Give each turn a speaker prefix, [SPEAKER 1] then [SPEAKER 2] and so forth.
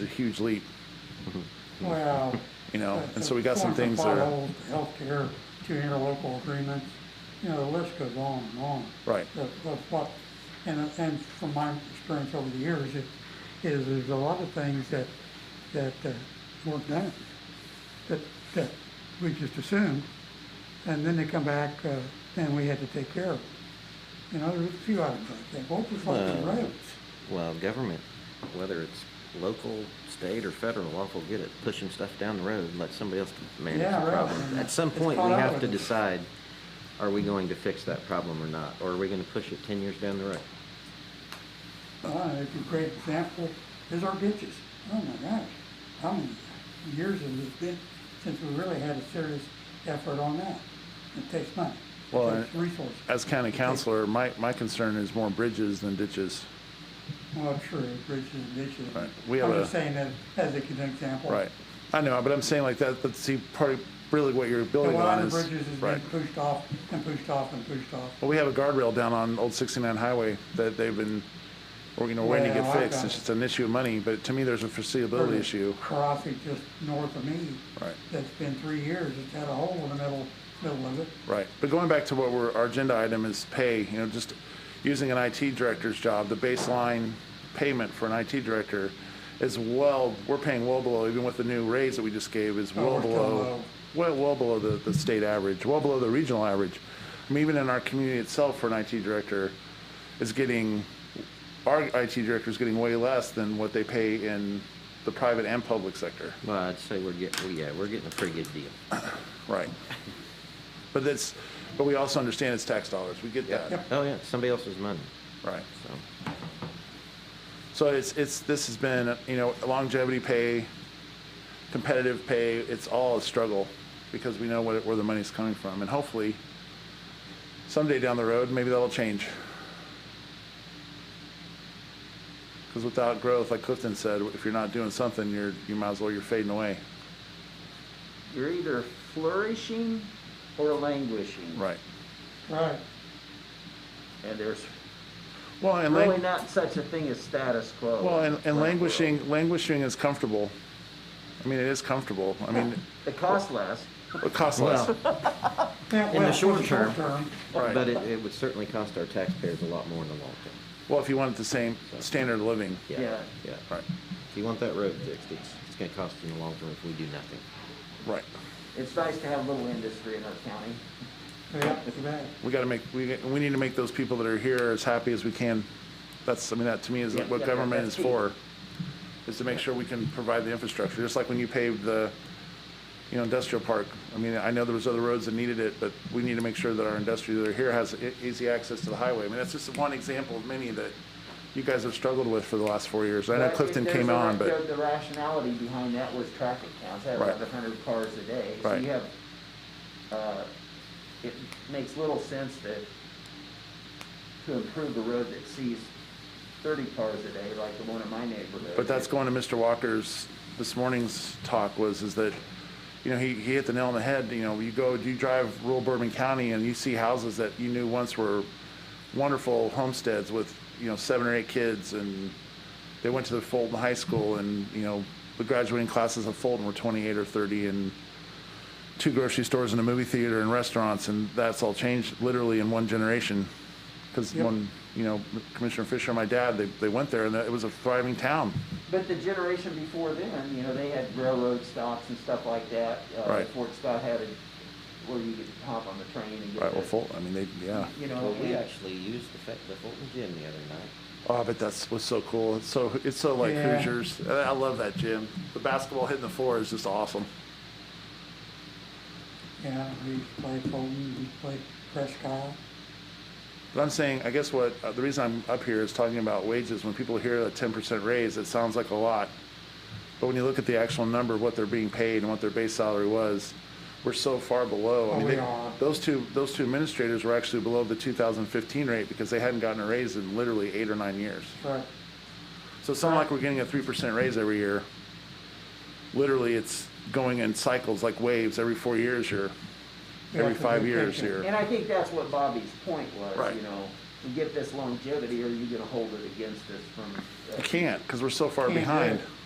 [SPEAKER 1] a huge leap,
[SPEAKER 2] Well.
[SPEAKER 1] you know,
[SPEAKER 2] that's
[SPEAKER 1] Oh, and
[SPEAKER 2] a
[SPEAKER 1] so we got some
[SPEAKER 2] form
[SPEAKER 1] things
[SPEAKER 2] of
[SPEAKER 1] that are,
[SPEAKER 2] follow, Healthcare, two interlocal agreements, you know, the list goes on and on.
[SPEAKER 1] Right.
[SPEAKER 2] Of, of what, and, and from my experience over the years, it, is there's a lot of things that, that uh, weren't done. That, that we just assumed, and then they come back, uh, and we had to take care of. it. You know, there's a few items like that, both the fucking
[SPEAKER 3] Well-
[SPEAKER 2] roads.
[SPEAKER 3] Well, government, whether it's local, state, or federal, all will get it, pushing stuff down the road, and let somebody else manage
[SPEAKER 2] Yeah,
[SPEAKER 3] the
[SPEAKER 2] right.
[SPEAKER 3] problem. At some
[SPEAKER 2] It's
[SPEAKER 3] point,
[SPEAKER 2] caught
[SPEAKER 3] we
[SPEAKER 2] up
[SPEAKER 3] have
[SPEAKER 2] with
[SPEAKER 3] to
[SPEAKER 2] it.
[SPEAKER 3] decide, are we going to fix that problem or not? Or are we gonna push it ten years down the road?
[SPEAKER 2] Uh, it's a great example is our ditches. Oh my gosh, how many years has it been since we really had a serious effort on that? It takes money.
[SPEAKER 1] Well,
[SPEAKER 2] It takes
[SPEAKER 1] and-
[SPEAKER 2] resources.
[SPEAKER 1] as county counselor, my, my concern is more bridges than ditches.
[SPEAKER 2] Well, true, bridges and ditches.
[SPEAKER 1] Right. We have
[SPEAKER 2] I'm just
[SPEAKER 1] a-
[SPEAKER 2] saying that as a good example.
[SPEAKER 1] Right. I know, but I'm saying like that, but see, part of, really what you're
[SPEAKER 2] A
[SPEAKER 1] building on
[SPEAKER 2] lot
[SPEAKER 1] is.
[SPEAKER 2] of bridges has been
[SPEAKER 1] Right.
[SPEAKER 2] pushed off and pushed off and pushed off.
[SPEAKER 1] Well, we have a guardrail down on Old 69 Highway that they've been, or, you know, waiting to
[SPEAKER 2] Well,
[SPEAKER 1] get
[SPEAKER 2] I've
[SPEAKER 1] fixed.
[SPEAKER 2] got
[SPEAKER 1] It's
[SPEAKER 2] it.
[SPEAKER 1] just an issue of money, but to me, there's a foreseeability issue.
[SPEAKER 2] Karasi just north of me.
[SPEAKER 1] Right.
[SPEAKER 2] That's been three years. It's had a hole in the middle, middle of it.
[SPEAKER 1] Right, but going back to what we're, our agenda item is pay, you know, just using an IT director's job, the baseline payment for an IT director is well, we're paying well below, even with the new raise that we just gave, is
[SPEAKER 2] Oh,
[SPEAKER 1] well
[SPEAKER 2] we're still
[SPEAKER 1] below,
[SPEAKER 2] low.
[SPEAKER 1] well, well below the, the state average, well below the regional average. I mean, even in our community itself, for an IT director, is getting, our IT director is getting way less than what they pay in the private and public sector.
[SPEAKER 3] Well, I'd say we're getting, well, yeah, we're getting a pretty good deal.
[SPEAKER 1] Right. But that's, but we also understand it's tax dollars. We get that.
[SPEAKER 2] Yep.
[SPEAKER 3] Oh, yeah, it's somebody else's money,
[SPEAKER 1] Right.
[SPEAKER 3] so.
[SPEAKER 1] So it's, it's, this has been, you know, longevity pay, competitive pay, it's all a struggle because we know what, where the money's coming from. And hopefully someday down the road, maybe that'll change. Because without growth, like Clifton said, if you're not doing something, you're, you might as well, you're fading away.
[SPEAKER 4] You're either flourishing or languishing.
[SPEAKER 1] Right.
[SPEAKER 2] Right.
[SPEAKER 4] And there's
[SPEAKER 1] Well, and
[SPEAKER 4] really
[SPEAKER 1] lang-
[SPEAKER 4] not such a thing as status quo.
[SPEAKER 1] well, and,
[SPEAKER 4] in the
[SPEAKER 1] and
[SPEAKER 4] world.
[SPEAKER 1] languishing, languishing is comfortable. I mean, it is comfortable. I mean,
[SPEAKER 4] It costs less.
[SPEAKER 1] it costs less.
[SPEAKER 2] Yeah,
[SPEAKER 3] the
[SPEAKER 2] well, for
[SPEAKER 3] short term.
[SPEAKER 2] term.
[SPEAKER 1] Right.
[SPEAKER 3] But it, it would certainly cost our taxpayers a lot more in the long term.
[SPEAKER 1] Well, if you wanted the same standard of living.
[SPEAKER 4] Yeah.
[SPEAKER 3] Yeah.
[SPEAKER 1] Right,
[SPEAKER 3] If you want that road fixed, it's, it's gonna cost you in the long term if we do nothing.
[SPEAKER 1] right.
[SPEAKER 4] It's nice to have a little industry in our county.
[SPEAKER 2] Yeah, it's bad.
[SPEAKER 1] We gotta make, we, we need to make those people that are here as happy as we can. That's, I mean, that to me is
[SPEAKER 4] Yeah,
[SPEAKER 1] what
[SPEAKER 4] yeah,
[SPEAKER 1] government is
[SPEAKER 4] that's
[SPEAKER 1] for, is to make sure we can provide the infrastructure, just like when you paved the, you know, industrial park. I mean, I know there was other roads that needed it, but we need to make sure that our industry that are here has e- easy access to the highway. I mean, that's just one example of many that you guys have struggled with for the last four years. I know
[SPEAKER 4] But
[SPEAKER 1] Clifton
[SPEAKER 4] there's
[SPEAKER 1] came
[SPEAKER 4] a-
[SPEAKER 1] on,
[SPEAKER 4] the-
[SPEAKER 1] but,
[SPEAKER 4] The rationality behind that was traffic counts, I have
[SPEAKER 1] Right.
[SPEAKER 4] eleven hundred cars a day. So
[SPEAKER 1] Right.
[SPEAKER 4] you have, uh, it makes little sense that, to improve a road that sees thirty cars a day, like the one in my neighborhood.
[SPEAKER 1] but that's
[SPEAKER 4] it-
[SPEAKER 1] going to Mr. Walker's, this morning's talk was, is that, you know, he, he hit the nail on the head, you know, you go, you drive rural Bourbon County and you see houses that you knew once were wonderful homesteads with, you know, seven or eight kids and they went to the Fulton High School and, you know, the graduating classes of Fulton were twenty-eight or thirty and two grocery stores and a movie theater and restaurants and that's all changed literally in one generation. Cause
[SPEAKER 2] Yep.
[SPEAKER 1] one, you know, Commissioner Fisher and my dad, they, they went there and it was a thriving town.
[SPEAKER 4] But the generation before then, you know, they had railroad stops and stuff like that. Uh,
[SPEAKER 1] Right.
[SPEAKER 4] Fort Scott had it where you could hop on the train and get.
[SPEAKER 1] Right, well,
[SPEAKER 4] the-
[SPEAKER 1] Fulton, I mean, they, yeah.
[SPEAKER 4] You know,
[SPEAKER 3] Well, we
[SPEAKER 4] and-
[SPEAKER 3] actually used the Fe- the Fulton Gym the other night.
[SPEAKER 1] Oh, but that's what's so cool. It's so, it's so like
[SPEAKER 2] Yeah.
[SPEAKER 1] Hoosiers. I I love that gym. The basketball hitting the floor is just awesome.
[SPEAKER 2] Yeah, we used to play Fulton, we used to play Prescott.
[SPEAKER 1] But I'm saying, I guess what, uh, the reason I'm up here is talking about wages. When people hear a 10% raise, it sounds like a lot. But when you look at the actual number, of what they're being paid and what their base salary was, we're so far below. I
[SPEAKER 2] Oh,
[SPEAKER 1] mean,
[SPEAKER 2] we
[SPEAKER 1] they-
[SPEAKER 2] are.
[SPEAKER 1] Those two, those two administrators were actually below the 2015 rate because they hadn't gotten a raise in literally eight or nine years.
[SPEAKER 2] Right.
[SPEAKER 1] So it's not like we're getting a three percent raise every year. Literally, it's going in cycles like waves. Every four years, you're,
[SPEAKER 2] Yeah,
[SPEAKER 1] every
[SPEAKER 2] it's a
[SPEAKER 1] five
[SPEAKER 2] big
[SPEAKER 1] years,
[SPEAKER 2] picture.
[SPEAKER 1] you're.
[SPEAKER 4] And I think that's what Bobby's point was,
[SPEAKER 1] Right.
[SPEAKER 4] you know, to get this longevity, or you gonna hold it against us from. uh,
[SPEAKER 1] You can't, because we're so far
[SPEAKER 2] Can't do
[SPEAKER 1] behind.
[SPEAKER 2] it.